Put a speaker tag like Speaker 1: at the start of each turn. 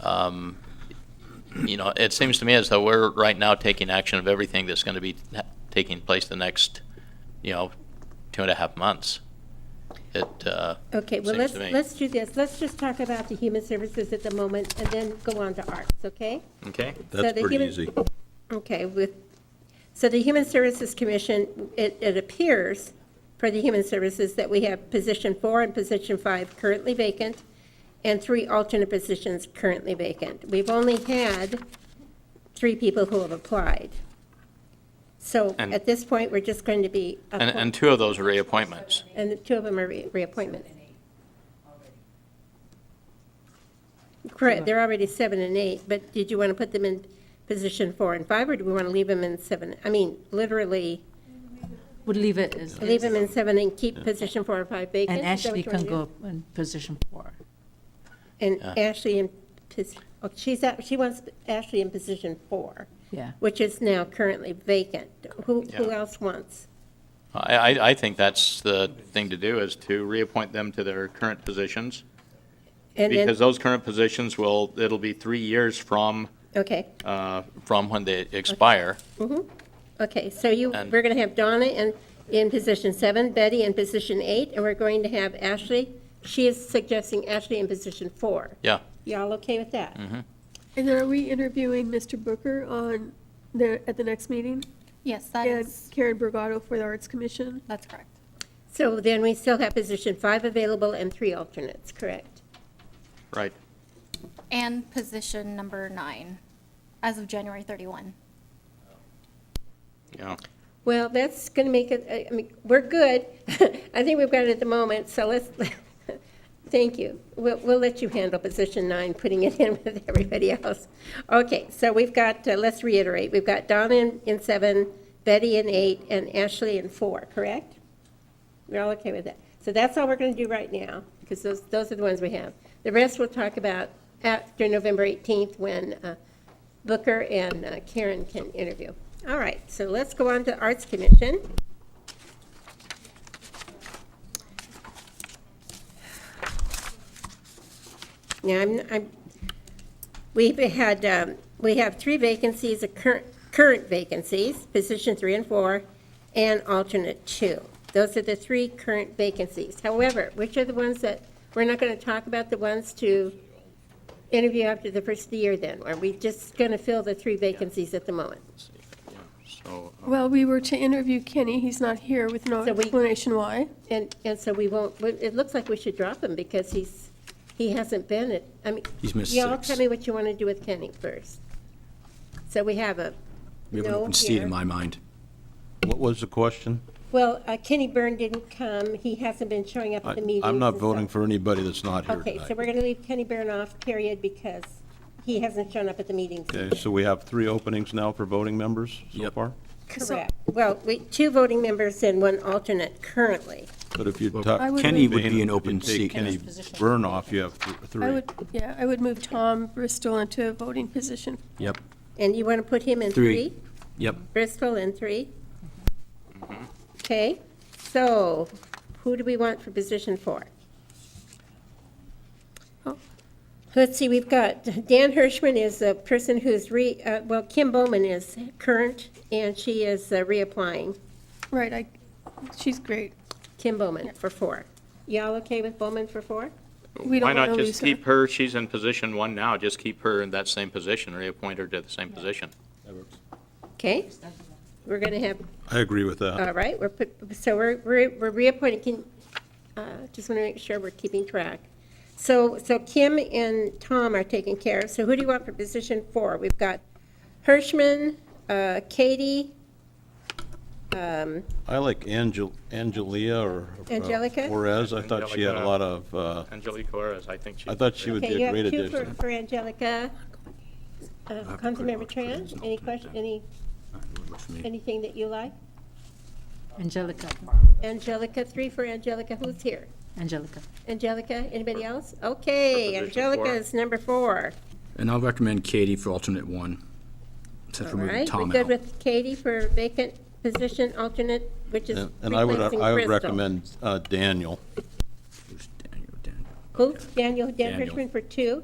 Speaker 1: um, you know, it seems to me as though we're right now taking action of everything that's going to be ha- taking place the next, you know, two and a half months. It, uh,
Speaker 2: Okay, well,
Speaker 1: Seems
Speaker 2: let's,
Speaker 1: to me.
Speaker 2: let's do this. Let's just talk about the human services at the moment and then go on to arts, okay?
Speaker 1: okay?
Speaker 2: So
Speaker 3: That's
Speaker 2: the
Speaker 3: pretty
Speaker 2: human-
Speaker 3: easy.
Speaker 2: Okay, with, so the Human Services Commission, it, it appears for the Human Services that we have position four and position five currently vacant and three alternate positions currently vacant. We've only had three people who have applied. So
Speaker 1: And-
Speaker 2: at this point, we're just going to be,
Speaker 1: And,
Speaker 2: appoint-
Speaker 1: and two of those are reappointments.
Speaker 2: and the two of them are re- reappointments. Correct, they're already seven and eight, but did you want to put them in position four and five, or do we want to leave them in seven? I mean, literally,
Speaker 4: Would leave it as,
Speaker 2: leave them
Speaker 4: and
Speaker 2: in seven and keep position four and five vacant? Is that
Speaker 4: Ashley
Speaker 2: what you wanna
Speaker 4: can
Speaker 2: do?
Speaker 4: go in position four.
Speaker 2: And Ashley in, pos- oh, she's, at- she wants Ashley in position four,
Speaker 4: Yeah,
Speaker 2: which is now currently vacant. Who, who
Speaker 1: Yeah.
Speaker 2: else wants?
Speaker 1: I, I, I think that's the thing to do, is to reappoint them to their current positions,
Speaker 2: And then,
Speaker 1: because those current positions will, it'll be three years from,
Speaker 2: okay,
Speaker 1: uh, from when they expire.
Speaker 2: Mm-hmm. okay, so you,
Speaker 1: And-
Speaker 2: we're going to have Donna in, in position seven, Betty in position eight, and we're going to have Ashley, she is suggesting Ashley in position four.
Speaker 1: Yeah, Mm-hmm.
Speaker 2: Y'all okay with that?
Speaker 5: And then are we interviewing Mr. Booker on the, at the next meeting?
Speaker 6: Yes, that
Speaker 5: And
Speaker 6: is,
Speaker 5: Karen Brigado for the Arts Commission?
Speaker 6: that's correct.
Speaker 2: So then we still have position five available and three alternates, correct?
Speaker 1: right.
Speaker 6: And position number nine, as of January 31.
Speaker 1: Yeah.
Speaker 2: Well, that's going to make it, I- I mean, we're good. I think we've got it at the moment, so let's, thank you. We'll, we'll let you handle position nine, putting it in with everybody else. Okay, so we've got, uh, let's reiterate, we've got Donna in, in seven, Betty in eight, and Ashley in four, correct? We're all okay with that. So that's all we're going to do right now, because those, those are the ones we have. The rest we'll talk about after November 18th, when uh, Booker and uh, Karen can interview. All right, so let's go on to Arts Commission. Now, I'm, I'm, we've had, um, we have three vacancies, a current, current vacancies, position three and four, and alternate two. Those are the three current vacancies. However, which are the ones that, we're not going to talk about the ones to interview after the first of the year then? Are we just going to fill the three vacancies at the moment?
Speaker 1: So,
Speaker 5: Well, we were to interview Kenny, he's not here with no
Speaker 2: So we-
Speaker 5: explanation why.
Speaker 2: And, and so we won't, but it looks like we should drop him because he's, he hasn't been at, I mean.
Speaker 3: He's missed
Speaker 2: Y'all
Speaker 3: six.
Speaker 2: tell me what you want to do with Kenny first. So we have a,
Speaker 3: We have an
Speaker 2: No
Speaker 3: open seat
Speaker 2: here.
Speaker 3: in my mind.
Speaker 7: What was the question?
Speaker 2: well, uh, Kenny Byrne didn't come. He hasn't been showing up
Speaker 7: I-
Speaker 2: at the meetings.
Speaker 7: I'm not
Speaker 2: and
Speaker 7: voting
Speaker 2: stuff.
Speaker 7: for anybody that's not here
Speaker 2: Okay, so we're
Speaker 7: tonight.
Speaker 2: going to leave Kenny Byrne off, period, because he hasn't shown up at the meetings.
Speaker 7: Okay, so we have three openings now for voting members so
Speaker 3: Yep.
Speaker 7: far?
Speaker 2: Correct. Well, we, two voting members and one alternate currently.
Speaker 7: But if you talk.
Speaker 5: I would-
Speaker 3: Kenny would be
Speaker 7: If you
Speaker 3: an open
Speaker 7: take
Speaker 3: seat.
Speaker 7: Kenny
Speaker 4: Position.
Speaker 7: Burnoff, you have th-
Speaker 5: I
Speaker 7: three.
Speaker 5: would, yeah, I would move Tom Bristol into a voting position.
Speaker 3: Yep,
Speaker 2: And you want to put him in
Speaker 3: Three.
Speaker 2: three?
Speaker 3: yep.
Speaker 2: Bristol and three? Okay, so who do we want for position four? Oh, Let's see, we've got, Dan Hirschman is a person who's re, uh, well, Kim Bowman is current, and she is uh, reapplying.
Speaker 5: Right, I, she's great.
Speaker 2: Kim Bowman for four. Y'all okay with Bowman for four?
Speaker 5: We
Speaker 1: Why
Speaker 5: don't want
Speaker 1: not
Speaker 5: to
Speaker 1: just
Speaker 5: lose
Speaker 1: keep
Speaker 5: her.
Speaker 1: her, she's in position one now, just keep her in that same position, reappoint her to the same position.
Speaker 2: Okay? We're going to have
Speaker 7: I agree with that.
Speaker 2: All right, we're, put- so we're, we're we're reappointing, can, uh, just want to make sure we're keeping track. So, so Kim and Tom are taken care of, so who do you want for position four? We've got Hirschman, uh, Katie, um,
Speaker 7: I like Angel, Angelia or. uh,
Speaker 2: Angelica?
Speaker 7: Flores. I thought she had a
Speaker 1: Angelica.
Speaker 7: lot of, uh,
Speaker 1: Angelique Torres, I think she.
Speaker 7: I thought she would be
Speaker 2: okay, you
Speaker 7: a
Speaker 2: have
Speaker 7: great
Speaker 2: two for,
Speaker 7: addition.
Speaker 2: for Angelica. Uh, Councilmember Tran, any question, any, anything that you like?
Speaker 4: Angelica,
Speaker 2: Angelica, three for Angelica, who's here?
Speaker 4: Angelica.
Speaker 2: Angelica, anybody else? Okay,
Speaker 1: For position
Speaker 2: Angelica
Speaker 1: four.
Speaker 2: is number four.
Speaker 3: And I'll recommend Katie for alternate one, since
Speaker 2: All
Speaker 3: we're moving
Speaker 2: right, we're
Speaker 3: Tom
Speaker 2: good
Speaker 3: out.
Speaker 2: with Katie for vacant position alternate, which is
Speaker 7: And
Speaker 2: replacing
Speaker 7: and I would,
Speaker 2: Crystal.
Speaker 7: I would recommend uh, Daniel.
Speaker 3: Who's Daniel? Daniel.
Speaker 2: Who? Daniel, Dan
Speaker 3: Daniel.
Speaker 2: Hirschman for two?